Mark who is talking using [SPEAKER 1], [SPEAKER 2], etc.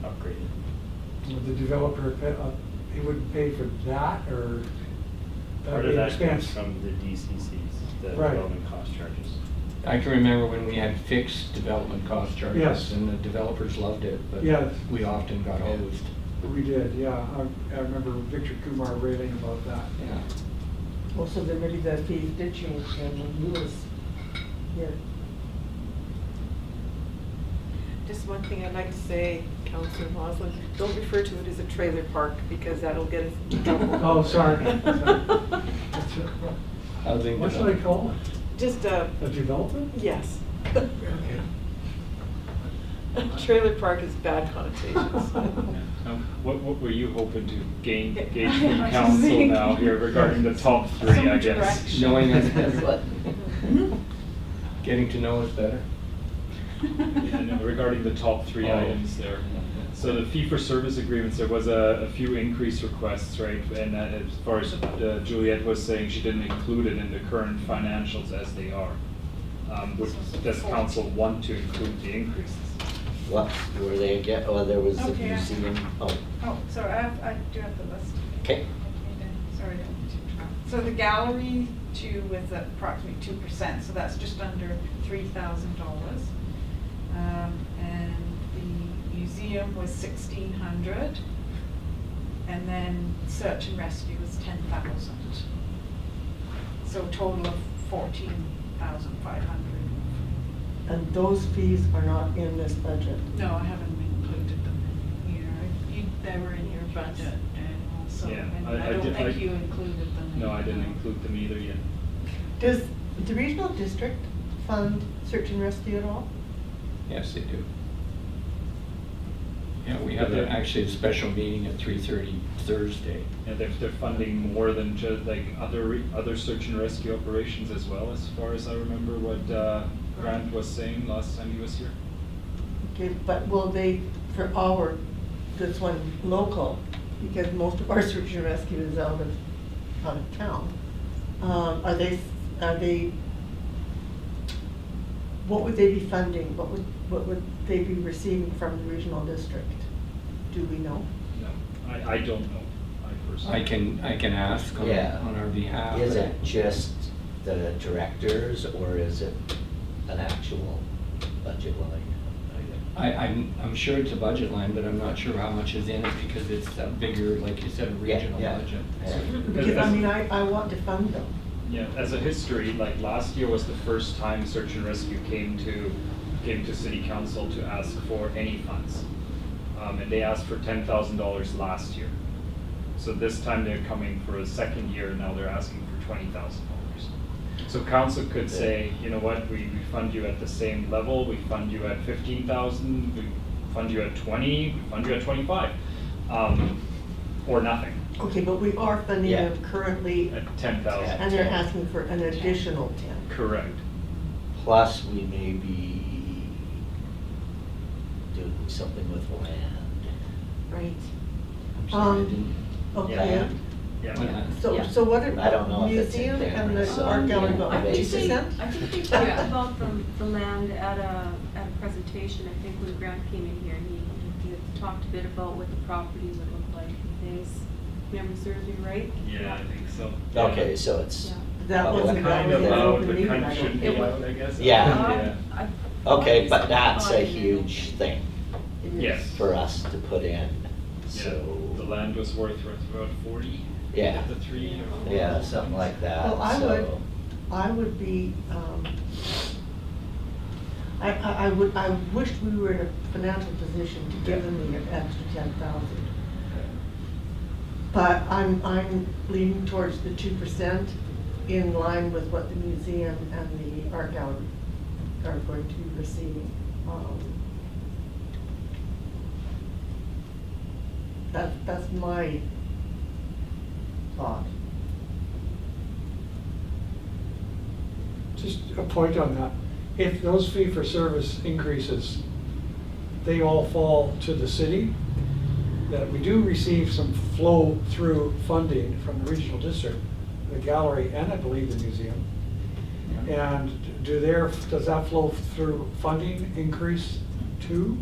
[SPEAKER 1] property.
[SPEAKER 2] Would the developer, pay- uh, he would pay for that, or that
[SPEAKER 1] Part
[SPEAKER 2] would
[SPEAKER 1] of
[SPEAKER 2] be an
[SPEAKER 1] that comes
[SPEAKER 2] expense?
[SPEAKER 1] from the DCCs, the
[SPEAKER 2] Right.
[SPEAKER 1] development cost charges.
[SPEAKER 3] I can remember when we had fixed development cost charges.
[SPEAKER 2] Yes.
[SPEAKER 3] And the developers loved it, but
[SPEAKER 2] Yes.
[SPEAKER 3] we often got hosed.
[SPEAKER 2] We did, yeah, I, I remember Victor Kumar railing about that.
[SPEAKER 3] Yeah.
[SPEAKER 4] Well, so then maybe that fee did change then when you was here.
[SPEAKER 5] Just one thing I'd like to say, Councilor Moslin, don't refer to it as a trailer park because that'll get us in trouble.
[SPEAKER 2] Oh, sorry. That's it.
[SPEAKER 3] Housing
[SPEAKER 2] What should I
[SPEAKER 3] development.
[SPEAKER 2] call
[SPEAKER 5] Just a,
[SPEAKER 2] it? A development?
[SPEAKER 5] yes.
[SPEAKER 2] Okay.
[SPEAKER 5] Trailer park has bad connotations.
[SPEAKER 1] Um, What, what were you hoping to gain,
[SPEAKER 6] Yeah,
[SPEAKER 1] gauge
[SPEAKER 6] I
[SPEAKER 1] from
[SPEAKER 6] was
[SPEAKER 1] council
[SPEAKER 6] thinking-
[SPEAKER 1] now here regarding the top three, I
[SPEAKER 6] much
[SPEAKER 1] guess?
[SPEAKER 6] direction.
[SPEAKER 3] Knowing us
[SPEAKER 6] That's
[SPEAKER 3] better.
[SPEAKER 6] what-
[SPEAKER 3] Getting to know us better.
[SPEAKER 1] And Regarding the top three
[SPEAKER 3] Oh.
[SPEAKER 1] items there. So the fee-for-service agreements, there was a, a few increase requests, right? And uh, as far as uh, Juliet was saying, she didn't include it in the current financials as they are. Um, would- Does council want to include the increases?
[SPEAKER 7] What, were they again, oh, there was the
[SPEAKER 6] Okay.
[SPEAKER 7] museum, oh,
[SPEAKER 6] Oh, sorry, I have, I do have the list.
[SPEAKER 7] okay.
[SPEAKER 6] Sorry, I didn't keep track. So the gallery two was at approximately two percent, so that's just under three thousand dollars. Um, And the museum was sixteen hundred. And then search and rescue was ten thousand. So total of fourteen thousand five hundred.
[SPEAKER 4] And those fees are not in this budget.
[SPEAKER 6] No, I haven't included them in here. You, they were in your budget, Daniel, so,
[SPEAKER 1] Yeah,
[SPEAKER 6] and
[SPEAKER 1] I- I
[SPEAKER 6] I don't
[SPEAKER 1] did-
[SPEAKER 6] think
[SPEAKER 1] I-
[SPEAKER 6] you included them. in
[SPEAKER 1] No, I didn't
[SPEAKER 6] here.
[SPEAKER 1] include them either yet.
[SPEAKER 4] Does the regional district fund search and rescue at all?
[SPEAKER 3] Yes, they do. Yeah, we have
[SPEAKER 1] But
[SPEAKER 3] a-
[SPEAKER 1] they're-
[SPEAKER 3] actually a special meeting at 3:30 Thursday.
[SPEAKER 1] You know, they're, they're funding more than just like other, re- other search and rescue operations as well, as far as I remember what uh, Grant was saying last time he was here.
[SPEAKER 4] Okay, but will they, for our, this one local, because most of our search and rescue is out of, out of town, um, are they, are they, what would they be funding? What would, what would they be receiving from the regional district? Do we know?
[SPEAKER 1] No, I, I don't know, I personally.
[SPEAKER 3] I can, I can ask on
[SPEAKER 7] Yeah.
[SPEAKER 3] on our behalf.
[SPEAKER 7] Is it just the directors or is it an actual budget line?
[SPEAKER 3] I, I'm, I'm sure it's a budget line, but I'm not sure how much is in it because it's a bigger, like you said, regional
[SPEAKER 7] yeah.
[SPEAKER 3] budget.
[SPEAKER 7] Yeah.
[SPEAKER 4] Because, I mean, I, I want to fund them.
[SPEAKER 1] Yeah, as a history, like last year was the first time search and rescue came to, came to city council to ask for any funds. Um, and they asked for ten thousand dollars last year. So this time they're coming for a second year, and now they're asking for twenty thousand dollars. So council could say, you know what, we, we fund you at the same level, we fund you at fifteen thousand, we fund you at twenty, we fund you at twenty-five. Um, or nothing,
[SPEAKER 4] Okay, but we are funding
[SPEAKER 7] Yeah.
[SPEAKER 4] them currently,
[SPEAKER 1] at ten thousand,
[SPEAKER 4] and they're asking for an additional ten.
[SPEAKER 1] correct.
[SPEAKER 7] Plus, we may be doing something with land.
[SPEAKER 4] Right.
[SPEAKER 7] I'm sorry, I
[SPEAKER 4] Um,
[SPEAKER 7] didn't-
[SPEAKER 4] okay,
[SPEAKER 7] Land.
[SPEAKER 1] Yeah.
[SPEAKER 3] Yeah.
[SPEAKER 4] so,
[SPEAKER 7] Yeah.
[SPEAKER 4] so what are,
[SPEAKER 7] I don't know if it's in
[SPEAKER 4] museum
[SPEAKER 7] there,
[SPEAKER 4] and the
[SPEAKER 7] so,
[SPEAKER 4] art gallery,
[SPEAKER 7] yeah,
[SPEAKER 4] about
[SPEAKER 7] I
[SPEAKER 4] fifty
[SPEAKER 7] think they-
[SPEAKER 4] percent?
[SPEAKER 8] I think we talked about the, the land at a, at a presentation, I think when Grant came in here, he, he talked a bit about what the property would look like and things. Memory serves me right?
[SPEAKER 1] Yeah, I think so.
[SPEAKER 7] Okay, so it's,
[SPEAKER 8] Yeah.
[SPEAKER 4] That
[SPEAKER 7] Well,
[SPEAKER 4] wasn't, that
[SPEAKER 1] Kind
[SPEAKER 4] was
[SPEAKER 1] of
[SPEAKER 4] an
[SPEAKER 7] uh,
[SPEAKER 1] loud,
[SPEAKER 4] open
[SPEAKER 1] but
[SPEAKER 4] meeting,
[SPEAKER 1] kind of
[SPEAKER 4] I don't
[SPEAKER 1] shouldn't be
[SPEAKER 4] think.
[SPEAKER 8] It was- Uh-huh.
[SPEAKER 1] loud, I guess.
[SPEAKER 7] Yeah.
[SPEAKER 8] Um, I- I-
[SPEAKER 7] okay,
[SPEAKER 8] I-
[SPEAKER 7] but that's a
[SPEAKER 8] I-
[SPEAKER 7] huge thing
[SPEAKER 8] It is.
[SPEAKER 1] Yes.
[SPEAKER 7] for us to put in,
[SPEAKER 1] Yeah, the
[SPEAKER 7] so,
[SPEAKER 1] land was worth worth about forty.
[SPEAKER 7] Yeah.
[SPEAKER 1] The three. or-
[SPEAKER 7] yeah, something like that, so.
[SPEAKER 4] Well, I would, I would be, um, I, I, I would, I wished we were in a financial position to give them the extra ten thousand. But I'm, I'm leaning towards the two percent in line with what the museum and the art gallery are going to be receiving. Um, That, that's my thought.
[SPEAKER 2] Just a point on that. If those fee-for-service increases, they all fall to the city, that we do receive some flow-through funding from the regional district, the gallery, and I believe the museum. And do their, does that flow-through funding increase too?